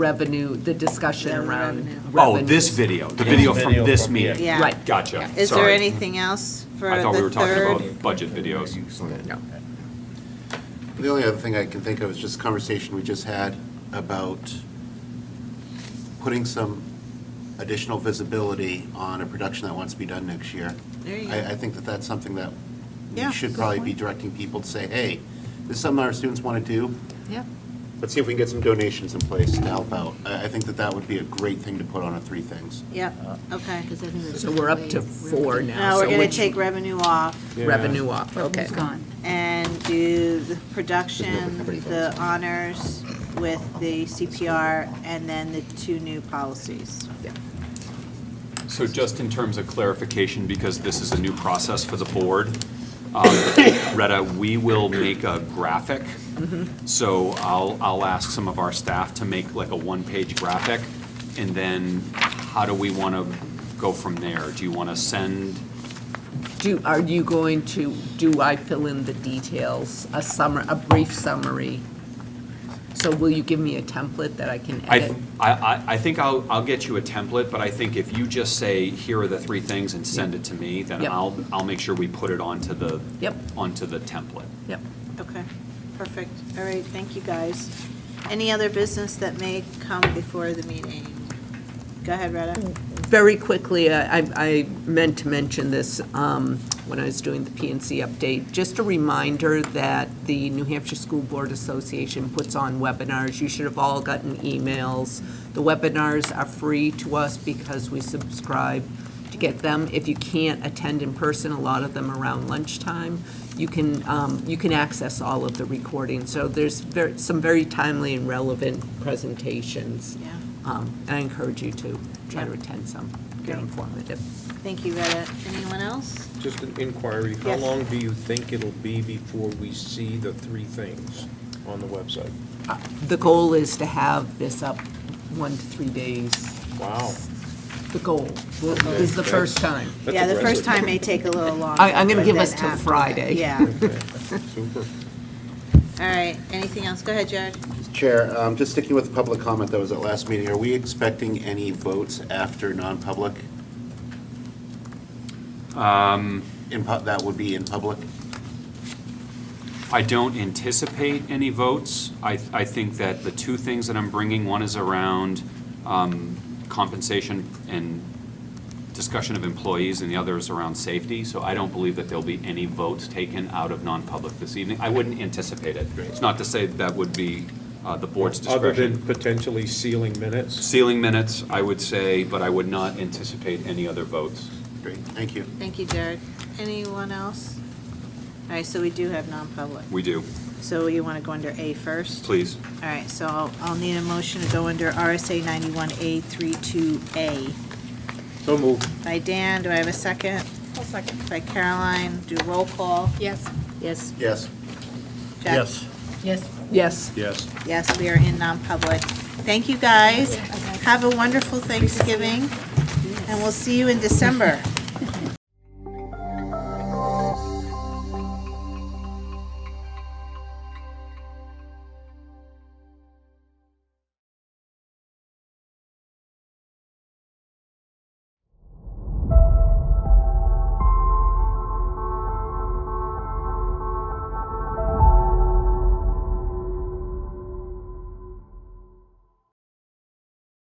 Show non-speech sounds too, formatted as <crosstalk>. revenue, the discussion Yeah, the around. revenue. Oh, revenues. this video, the video from Video this from meeting. here. Yeah. Right. Gotcha, Is there sorry. anything else for I thought we were the talking third? about budget videos. No. The only other thing I can think of is just a conversation we just had about putting some additional visibility on a production that wants to be done next year. There you I, go. I think that that's something that Yeah, we should good probably be point. directing people to say, hey, this is something our students want to do. Yeah. Let's see if we can get some donations in place to help out. I, I think that that would be a great thing to put on at Three Things. Yep, okay. So we're up to four now. Now, we're so going which to take revenue off Revenue off, okay. and do the production, Nobody votes. the honors with the CPR, and then the two new policies. So just in terms of clarification, because this is a new process for the board, um, <coughs> Retta, we will make a graphic. Mm-hmm. So I'll, I'll ask some of our staff to make like a one-page graphic, and then how do we want to go from there? Do you want to send, Do, are you going to, do I fill in the details, a summer, a brief summary? So will you give me a template that I can I, edit? I, I- I think I'll, I'll get you a template, but I think if you just say, here are the three things and send it to me, then Yep. I'll, I'll make sure we put it onto the, Yep. onto the template. Yep. Okay, perfect. All right, thank you, guys. Any other business that may come before the meeting? Go ahead, Mm. Retta. Very quickly, uh, I, I- I meant to mention this um, when I was doing the PNC update. Just a reminder that the New Hampshire School Board Association puts on webinars. You should have all gotten emails. The webinars are free to us because we subscribe to get them. If you can't attend in person, a lot of them around lunchtime, you can, um, you can access all of the recordings. So there's ver- some very timely and relevant presentations. Yeah. Um, And I encourage you to try to Yeah. attend some, they're Great. informative. Thank you, Retta. Anyone else? Just an inquiry, how Yes. long do you think it'll be before we see the three things on the website? The goal is to have this up one to three days. Wow. The goal. This is the first time. That's Yeah, the first aggressive. time may take a little longer. I- I'm gonna but give then us till after that, Friday. <laughs> Yeah, Super. all right. Anything else? Go ahead, Jared. Chair, um, just sticking with public comment that was at last meeting, are we expecting any votes after non-public? In pu- That would be in public? I don't anticipate any votes. I, I think that the two things that I'm bringing, one is around um, compensation and discussion of employees, and the other is around safety. So I don't believe that there'll be any votes taken out of non-public this evening. I wouldn't anticipate it. It's not to say that would be uh, the board's Other than discretion. potentially sealing minutes? Sealing minutes, I would say, but I would not anticipate any other votes. Great, thank you. Thank you, Jared. Anyone else? All right, so we do have non-public. We do. So you want to go under A first? Please. All right, so I'll, I'll need a motion to go under RSA 91A 32A. So moved. By Dan, do I have a second? I'll second. By Caroline, do roll call. Yes. Yes. Yes. Jack? Yes. Yes. Yes. Yes, we are in non-public. Thank you, guys. Have a wonderful Thanksgiving, and we'll see you in December.